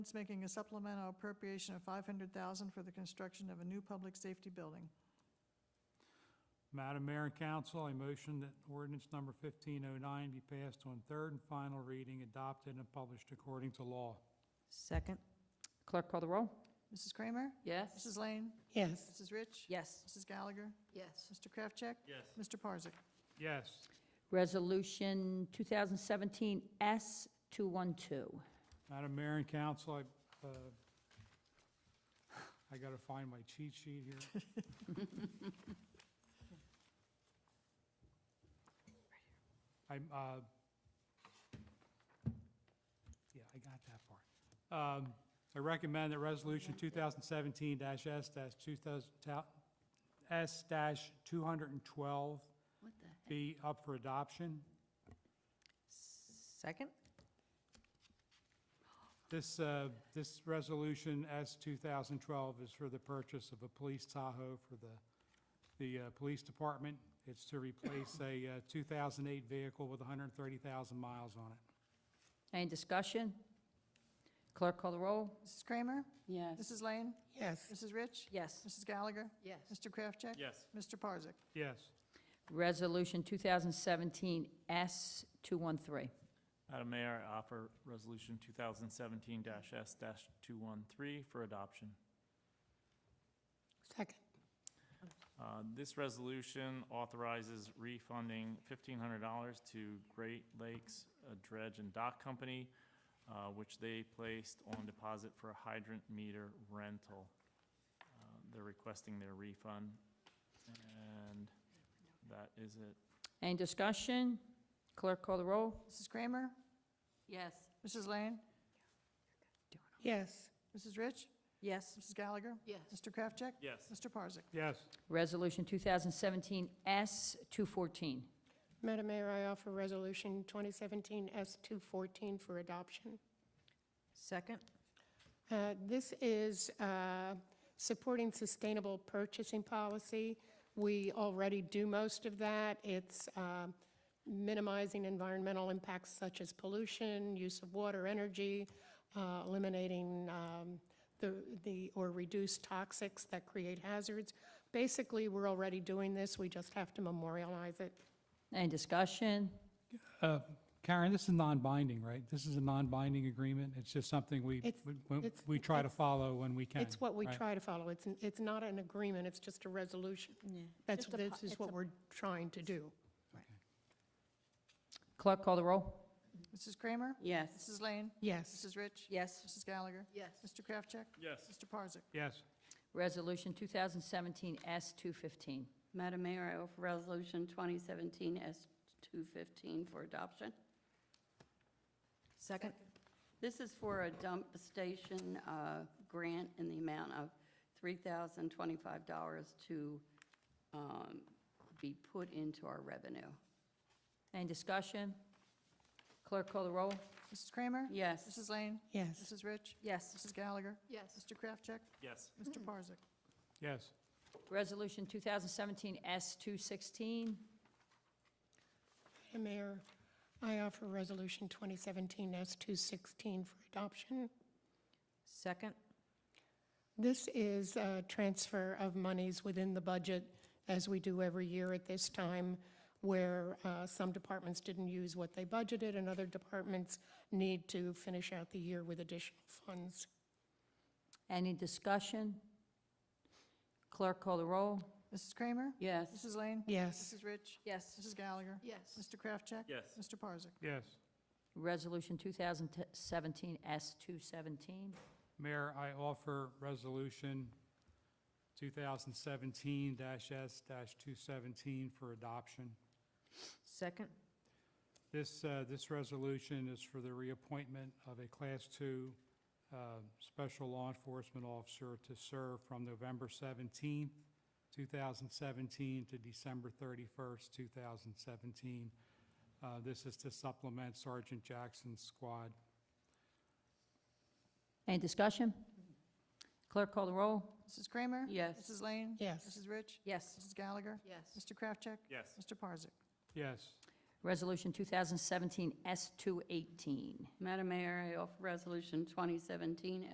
It's making a supplemental appropriation of 500000 for the construction of a new public safety building. Madam Mayor and Council, I motion that ordinance number 1509 be passed on third and final reading, adopted and published according to law. Second. Clerk call the roll. Mrs. Kramer? Yes. Mrs. Lane? Yes. Mrs. Rich? Yes. Mrs. Gallagher? Yes. Mr. Kraftcheck? Yes. Mr. Parzak? Yes. Resolution 2017-S212. Madam Mayor and Council, I, uh, I gotta find my cheat sheet here. I'm, uh, yeah, I got that part. Um, I recommend that Resolution 2017-S-2000, S-212 What the heck? be up for adoption. Second? This, uh, this resolution, S 2012, is for the purchase of a police Tahoe for the, the uh, police department. It's to replace a uh, 2008 vehicle with 130,000 miles on it. Any discussion? Clerk call the roll. Mrs. Kramer? Yes. Mrs. Lane? Yes. Mrs. Rich? Yes. Mrs. Gallagher? Yes. Mr. Kraftcheck? Yes. Mr. Parzak? Yes. Resolution 2017-S213. Madam Mayor, I offer Resolution 2017-S-213 for adoption. Second. Uh, This resolution authorizes refunding $1,500 to Great Lakes uh, Dredge and Dock Company, uh, which they placed on deposit for a hydrant meter rental. Uh, They're requesting their refund, and that is it. Any discussion? Clerk call the roll. Mrs. Kramer? Yes. Mrs. Lane? Yes. Mrs. Rich? Yes. Mrs. Gallagher? Yes. Mr. Kraftcheck? Yes. Mr. Parzak? Yes. Resolution 2017-S214. Madam Mayor, I offer Resolution 2017-S214 for adoption. Second? Uh, This is uh, supporting sustainable purchasing policy. We already do most of that. It's um, minimizing environmental impacts such as pollution, use of water, energy, uh, eliminating um, the, the or reduce toxics that create hazards. Basically, we're already doing this, we just have to memorialize it. Any discussion? Karen, this is non-binding, right? This is a non-binding agreement? It's just something we, It's- we- we- it's- we try to it's- follow when we can. It's what we right? try to follow. It's, n- it's not an agreement, it's just a resolution. Yeah. That's, Just a po- this it's is a- what we're trying to do. Clerk call the roll. Mrs. Kramer? Yes. Mrs. Lane? Yes. Mrs. Rich? Yes. Mrs. Gallagher? Yes. Mr. Kraftcheck? Yes. Mr. Parzak? Yes. Resolution 2017-S215. Madam Mayor, I offer Resolution 2017 S-215 for adoption. Second? This is for a dump station uh, grant in the amount of $3,025 to um, be put into our revenue. Any discussion? Clerk call the roll. Mrs. Kramer? Yes. Mrs. Lane? Yes. Mm-hmm. Mrs. Rich? Yes. Mrs. Gallagher? Yes. Mr. Kraftcheck? Yes. Mr. Parzak? Yes. Resolution 2017-S216. Madam Mayor, I offer Resolution 2017-S216 for adoption. Second? This is a transfer of monies within the budget, as we do every year at this time, where uh, some departments didn't use what they budgeted, and other departments need to finish out the year with additional funds. Any discussion? Clerk call the roll. Mrs. Kramer? Yes. Mrs. Lane? Yes. Mrs. Rich? Yes. Mrs. Gallagher? Yes. Mr. Kraftcheck? Yes. Mr. Parzak? Yes. Resolution 2017-S217. Mayor, I offer Resolution 2017-S-217 for adoption. Second? This, uh, this resolution is for the reappointment of a Class Two uh, Special Law Enforcement Officer to serve from November 17th, 2017 to December 31st, 2017. Uh, This is to supplement Sergeant Jackson's squad. Any discussion? Clerk call the roll. Mrs. Kramer? Yes. Mrs. Lane? Yes. Mrs. Rich? Yes. Mrs. Gallagher? Yes. Mr. Kraftcheck? Yes. Mr. Parzak? Yes. Resolution 2017 S218. Madam Mayor, I offer Resolution 2017